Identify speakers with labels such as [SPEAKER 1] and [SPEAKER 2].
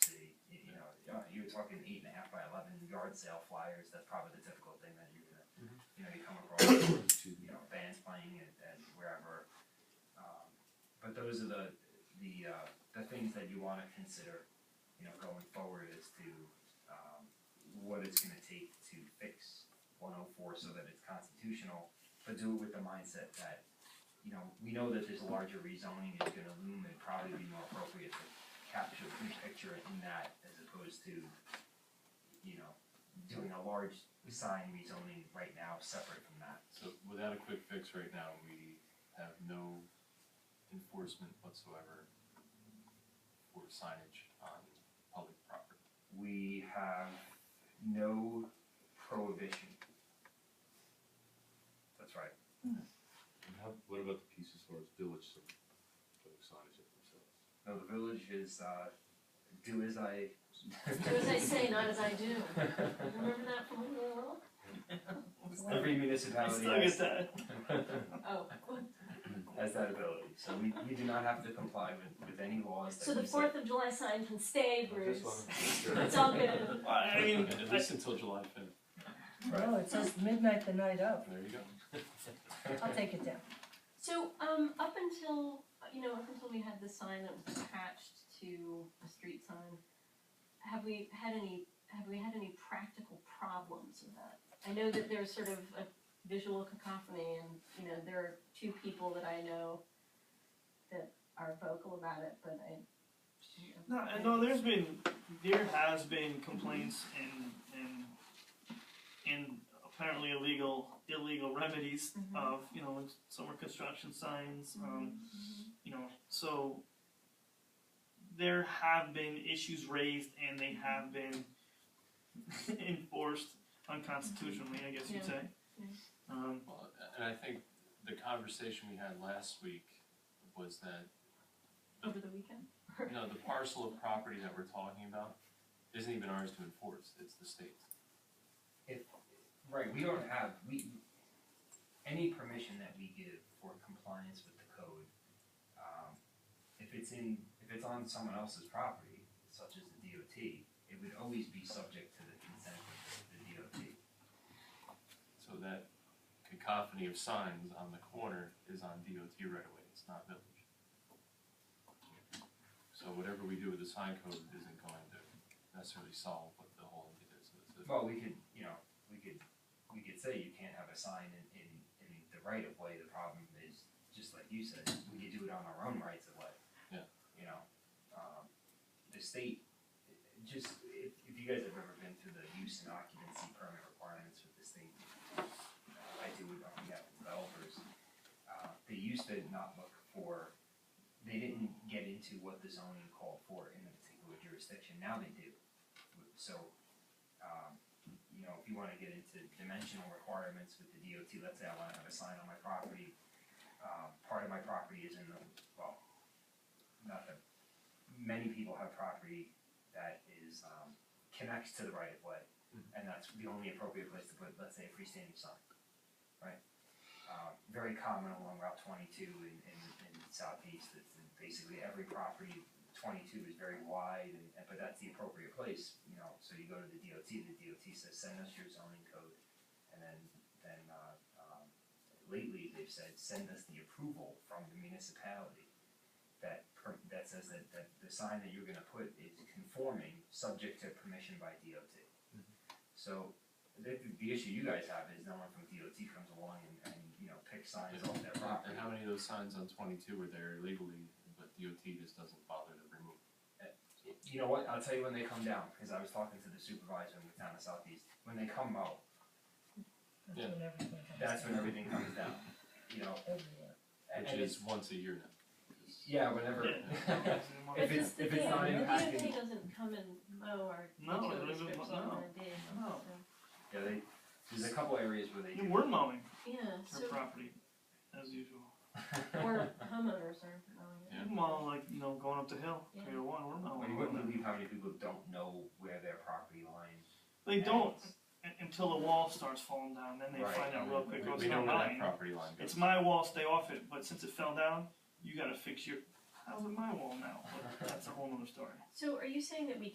[SPEAKER 1] working eight and a half by eleven yard sale flyers, that's probably the typical thing that you're gonna,
[SPEAKER 2] Mhm.
[SPEAKER 1] you know, you come across, you know, bands playing at, at wherever. Um, But those are the, the, uh, the things that you wanna consider, you know, going forward as to, um, what it's gonna take to fix one oh four so that it's constitutional, but do it with the mindset that, you know, we know that this larger rezoning is gonna loom, it'd probably be more appropriate to capture the picture in that as opposed to, you know, doing a large sign rezoning right now separate from that.
[SPEAKER 3] So without a quick fix right now, we have no enforcement whatsoever for signage on public property.
[SPEAKER 1] We have no prohibition. That's right.
[SPEAKER 4] And how, what about the pieces for its village, so, putting signage up themselves?
[SPEAKER 1] No, the village is, uh, do as I.
[SPEAKER 5] Do as I say, not as I do. Remember that from when we were little?
[SPEAKER 1] Every municipality has,
[SPEAKER 5] Oh,
[SPEAKER 1] has that ability, so we, we do not have to comply with, with any laws that
[SPEAKER 5] so the
[SPEAKER 1] we set.
[SPEAKER 5] Fourth of July sign can stay, Bruce.
[SPEAKER 4] sure.
[SPEAKER 5] It's all good.
[SPEAKER 2] Well, I mean,
[SPEAKER 3] At
[SPEAKER 2] I-
[SPEAKER 3] least until July fifth,
[SPEAKER 6] No, it says midnight the night of.
[SPEAKER 3] there you go.
[SPEAKER 6] I'll take it down.
[SPEAKER 5] So, um, up until, you know, up until we had the sign that was attached to a street sign, have we had any, have we had any practical problems with that? I know that there's sort of a visual cacophony and, you know, there are two people that I know that are vocal about it, but I.
[SPEAKER 2] no, I know there's been, there has been complaints and, and, and apparently illegal, illegal remedies
[SPEAKER 6] Mm-hmm.
[SPEAKER 5] Mhm.
[SPEAKER 2] of, you know, summer construction signs, um, you know, so there have been issues raised and they have been enforced unconstitutionally, I guess you'd
[SPEAKER 5] Yeah.
[SPEAKER 2] say.
[SPEAKER 5] Yeah.
[SPEAKER 2] Um,
[SPEAKER 3] Well, and I think the conversation we had last week was that,
[SPEAKER 5] Over the weekend?
[SPEAKER 3] you know, the parcel of property that we're talking about isn't even ours to enforce, it's the state's.
[SPEAKER 1] Right, we don't have, we, any permission that we give for compliance with the code, um, if it's in, if it's on someone else's property, such as the DOT, it would always be subject to the consent of the DOT.
[SPEAKER 3] So that cacophony of signs on the corner is on DOT right away, it's not village. So whatever we do with the sign code isn't going to necessarily solve what the whole idea is. of this.
[SPEAKER 1] Well, we could, you know, we could, we could say you can't have a sign in, in, in the right of way, the problem is, just like you said, we could do it on our own rights of way.
[SPEAKER 3] Yeah.
[SPEAKER 1] You know, um, the state, it- it just, if, if you guys have ever been through the use and occupancy permit requirements with this thing, uh, I do it on behalf of developers, uh, they used to not look for, they didn't get into what the zoning called for in a particular jurisdiction, now they do. So, um, you know, if you wanna get into dimensional requirements with the DOT, let's say I wanna have a sign on my property, um, part of my property is in the, well, not that, many people have property that is, um, connects to the right of way, and that's the only appropriate place to put, let's say, a freestanding sign, right? Um, very common along Route twenty-two in, in, in Southeast, it's basically every property twenty-two is very wide, and, and- but that's the appropriate place, you know, so you go to the DOT, and the DOT says, send us your zoning code, and then, then, uh, um, lately, they've said, send us the approval from the municipality that per, that says that, that the sign that you're gonna put is conforming, subject to permission by DOT. So, the, the issue you guys have is no one from DOT comes along and, and, you know, picks signs off their property.
[SPEAKER 3] And how many of those signs on twenty-two were there illegally, but DOT just doesn't bother to remove?
[SPEAKER 1] You know what? I'll tell you when they come down because I was talking to the supervisor in the town of Southeast. When they come out,
[SPEAKER 3] Yeah.
[SPEAKER 6] That's when everything comes
[SPEAKER 1] that's when
[SPEAKER 6] down.
[SPEAKER 1] everything comes down. You know,
[SPEAKER 6] Everywhere.
[SPEAKER 1] and-
[SPEAKER 3] Which
[SPEAKER 1] and
[SPEAKER 3] is once a year now.
[SPEAKER 1] it's- yeah, whenever.
[SPEAKER 2] yeah.
[SPEAKER 1] If it's-
[SPEAKER 5] But
[SPEAKER 1] if it's not
[SPEAKER 5] that's the
[SPEAKER 1] impacting-
[SPEAKER 5] thing, the DOT doesn't come and mow our
[SPEAKER 2] No, it
[SPEAKER 5] digital
[SPEAKER 2] doesn't-
[SPEAKER 5] descriptions
[SPEAKER 2] no,
[SPEAKER 5] on a day,
[SPEAKER 2] no.
[SPEAKER 6] Oh.
[SPEAKER 5] so-
[SPEAKER 1] yeah, they, there's a couple areas where they
[SPEAKER 2] You
[SPEAKER 1] do.
[SPEAKER 2] were mowing
[SPEAKER 5] Yeah,
[SPEAKER 2] your
[SPEAKER 5] so,
[SPEAKER 2] property, as usual.
[SPEAKER 5] or homeowners are mowing it.
[SPEAKER 3] Yeah.
[SPEAKER 2] Well, like, you know, going up the hill,
[SPEAKER 5] Yeah.
[SPEAKER 2] Crater One, we're not.
[SPEAKER 1] Well, you wouldn't believe how many people don't know where their property line.
[SPEAKER 2] They don't
[SPEAKER 1] ends.
[SPEAKER 2] un- until the wall starts falling down, then they
[SPEAKER 1] Right.
[SPEAKER 2] find out real
[SPEAKER 3] We,
[SPEAKER 2] quick, oh, it's
[SPEAKER 3] we know
[SPEAKER 2] not
[SPEAKER 3] where that
[SPEAKER 2] mine.
[SPEAKER 3] property line goes.
[SPEAKER 2] It's my wall, stay off it, but since it fell down, you gotta fix your, how's it my wall now? But That's a whole nother story.
[SPEAKER 5] So are you saying that we